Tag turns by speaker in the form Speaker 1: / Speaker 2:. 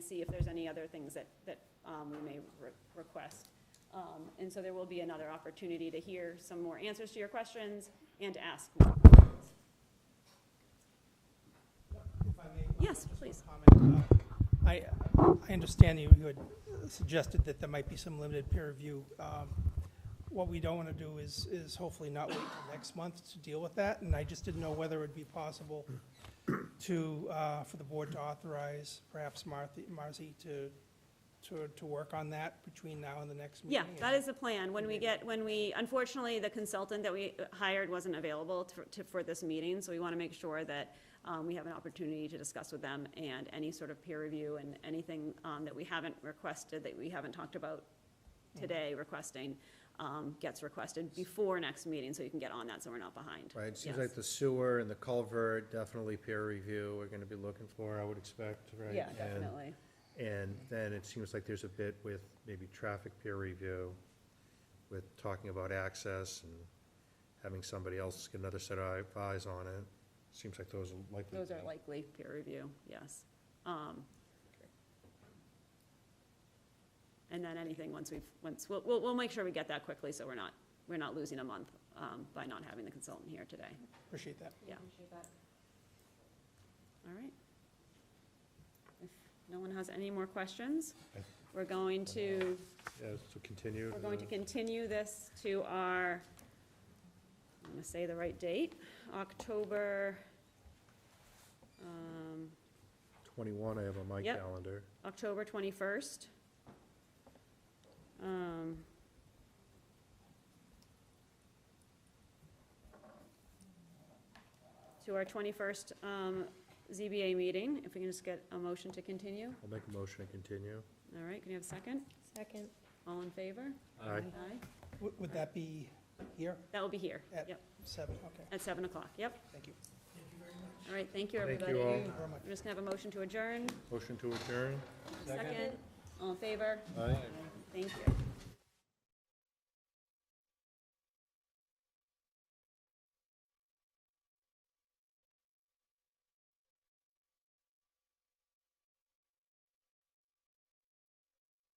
Speaker 1: see if there's any other things that, that um, we may re- request. Um, And so there will be another opportunity to hear some more answers to your questions and to ask more questions.
Speaker 2: If I may,
Speaker 1: Yes,
Speaker 2: just one
Speaker 1: please.
Speaker 2: comment. Uh, I, I understand you you had suggested that there might be some limited peer review. Um, What we don't want to do is, is hopefully not wait till next month to deal with that, and I just didn't know whether it'd be possible to, uh, for the board to authorize perhaps Martha, Marcy to, to, to work on that between now and the next
Speaker 1: Yeah,
Speaker 2: meeting.
Speaker 1: that is the plan. When we get, when we, unfortunately, the consultant that we hired wasn't available to- to, for this meeting, so we want to make sure that um, we have an opportunity to discuss with them and any sort of peer review and anything um, that we haven't requested, that we haven't talked about
Speaker 3: Mm-hmm.
Speaker 1: today requesting, um, gets requested before next meeting, so you can get on that, so we're not behind.
Speaker 3: Right, it seems
Speaker 1: Yes.
Speaker 3: like the sewer and the culvert, definitely peer review, we're gonna be looking for, I would expect, right?
Speaker 1: Yeah,
Speaker 3: And-
Speaker 1: definitely.
Speaker 3: And then it seems like there's a bit with maybe traffic peer review, with talking about access and having somebody else, get another set of eyes on it. Seems like those are likely.
Speaker 1: Those are
Speaker 3: to-
Speaker 1: likely peer review, yes. Um, And then anything, once we've, once, we'll, we'll, we'll make sure we get that quickly, so we're not, we're not losing a month um, by not having the consultant here today.
Speaker 2: Appreciate that.
Speaker 1: Yeah. All right. If no one has any more questions,
Speaker 3: I-
Speaker 1: we're going to,
Speaker 3: Yeah, so continue.
Speaker 1: we're going to
Speaker 3: uh,
Speaker 1: continue this to our, I'm gonna say the right date, October, um,
Speaker 3: Twenty-one, I have on my
Speaker 1: Yep.
Speaker 3: calendar.
Speaker 1: October 21st. Um, To our 21st um, ZBA meeting, if we can just get a motion to continue.
Speaker 3: I'll make a motion to continue.
Speaker 1: All right, can you have a second?
Speaker 4: Second.
Speaker 1: All in favor?
Speaker 3: Aye.
Speaker 1: Aye.
Speaker 2: Would, would that be here,
Speaker 1: That will be here,
Speaker 2: At-
Speaker 1: yep,
Speaker 2: seven? Okay,
Speaker 1: at 7 o'clock, yep.
Speaker 2: thank you.
Speaker 1: All right, thank you,
Speaker 3: Thank
Speaker 1: everybody.
Speaker 3: you all.
Speaker 2: Thank you very much.
Speaker 1: I'm just gonna have a motion to adjourn.
Speaker 3: Motion to adjourn?
Speaker 1: Second, all in favor?
Speaker 3: Aye.
Speaker 1: Thank you.